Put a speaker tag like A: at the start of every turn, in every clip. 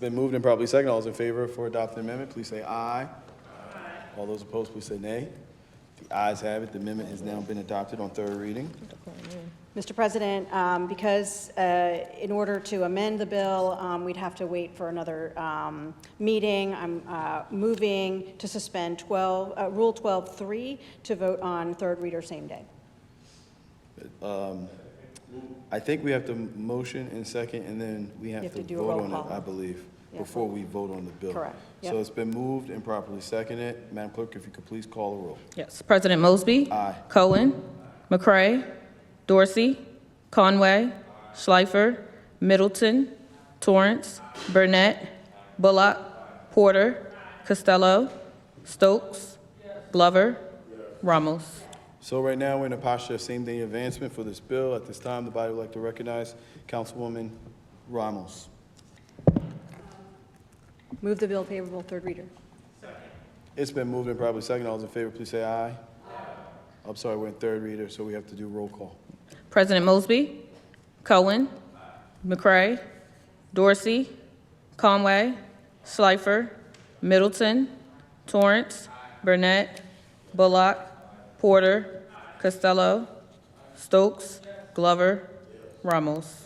A: Been moved and probably second. All those in favor for adopting the amendment, please say aye. All those opposed, please say nay. The ayes have it. The amendment has now been adopted on third reading.
B: Mr. President, um, because uh, in order to amend the bill, um, we'd have to wait for another um, meeting, I'm uh, moving to suspend 12, uh, Rule 12-3 to vote on third reader same day.
A: I think we have to motion and second, and then we have
B: have
A: to
B: to do a
A: vote
B: roll
A: on
B: call.
A: it, I believe,
B: Yeah.
A: before we vote on the bill.
B: Correct.
A: So
B: Yep.
A: it's been moved and properly seconded. Madam Clerk, if you could please call the roll.
C: Yes. President Mosby.
A: Aye.
C: Cohen. McCray. Dorsey. Conway. Schleifer. Middleton. Torrance. Burnett. Bullock. Porter. Costello. Stokes. Glover. Ramos.
A: So right now, we're in a posture of same-day advancement for this bill. At this time, the body would like to recognize Councilwoman Ramos.
B: Move the bill favorable third reader.
A: It's been moved and probably second. All those in favor, please say aye. I'm sorry, we're in third reader, so we have to do roll call.
C: President Mosby. Cohen. McCray. Dorsey. Conway. Schleifer. Middleton. Torrance. Burnett. Bullock. Porter. Costello. Stokes. Glover. Ramos.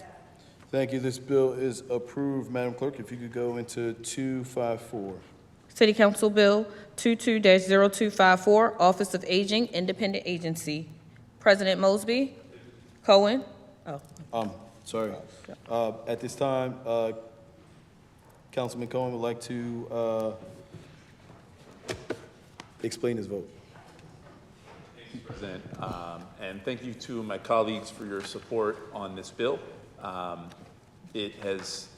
A: Thank you. This bill is approved. Madam Clerk, if you could go into 254.
C: City Council Bill 22-0254, Office of Aging, Independent Agency. President Mosby. Cohen. Oh,
A: Um, sorry. Uh, At this time, uh, Councilman Cohen would like to uh, explain his vote.
D: President, um, and thank you to my colleagues for your support on this bill. Um, It has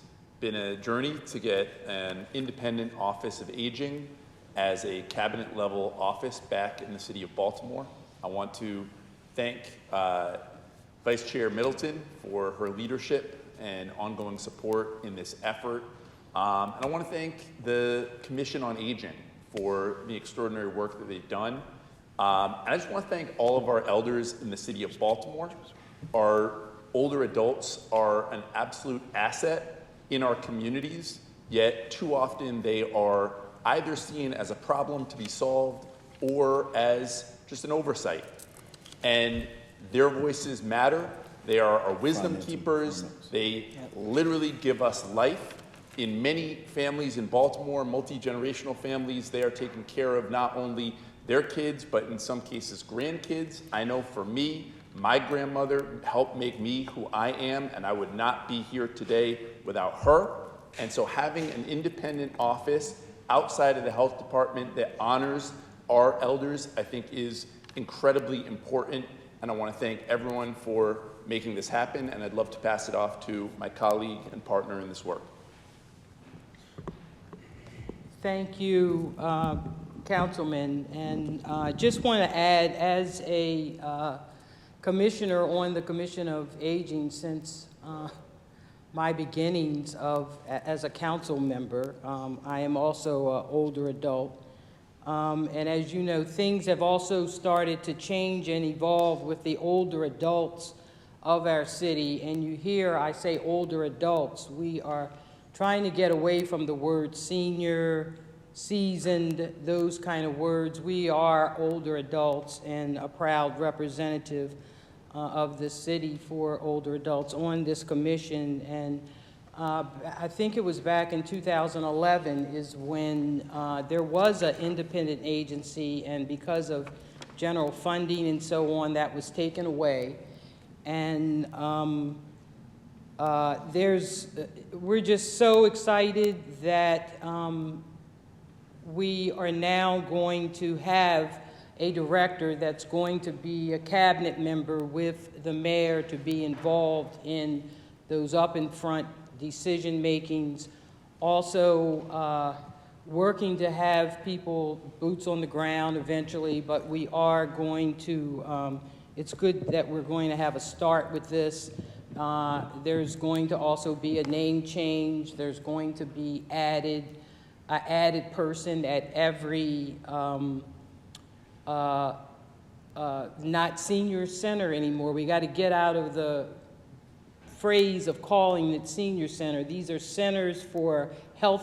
D: been a journey to get an independent office of aging as a cabinet-level office back in the city of Baltimore. I want to thank uh, Vice Chair Middleton for her leadership and ongoing support in this effort. Um, and I want to thank the Commission on Aging for the extraordinary work that they've done. Um, and I just want to thank all of our elders in the city of Baltimore. Our older adults are an absolute asset in our communities, yet too often they are either seen as a problem to be solved or as just an oversight and their voices matter. They are our wisdom keepers. They literally give us life. In many families in Baltimore, multi generational families, they are taking care of not only their kids, but in some cases, grandkids. I know for me, my grandmother helped make me who I am, and I would not be here today without her. And so having an independent office outside of the health department that honors our elders, I think is incredibly important. And I want to thank everyone for making this happen, and I'd love to pass it off to my colleague and partner in this work.
E: Thank you, uh, Councilman. And I just want to add, as a uh, commissioner on the Commission of Aging since uh, my beginnings of, a- as a council member, um, I am also an older adult. Um, And as you know, things have also started to change and evolve with the older adults of our city. And you hear I say older adults. We are trying to get away from the word senior, seasoned, those kind of words. We are older adults and a proud representative uh, of the city for older adults on this commission. And uh, I think it was back in 2011 is when uh, there was an independent agency, and because of general funding and so on, that was taken away. And um, uh, there's, we're just so excited that um, we are now going to have a director that's going to be a cabinet member with the mayor to be involved in those up in front decision makings. Also, uh, working to have people boots on the ground eventually, but we are going to, um, it's good that we're going to have a start with this. Uh, there's going to also be a name change. There's going to be added an added person at every, um, uh, uh, not senior center anymore. We got to get out of the phrase of calling it senior center. These are centers for health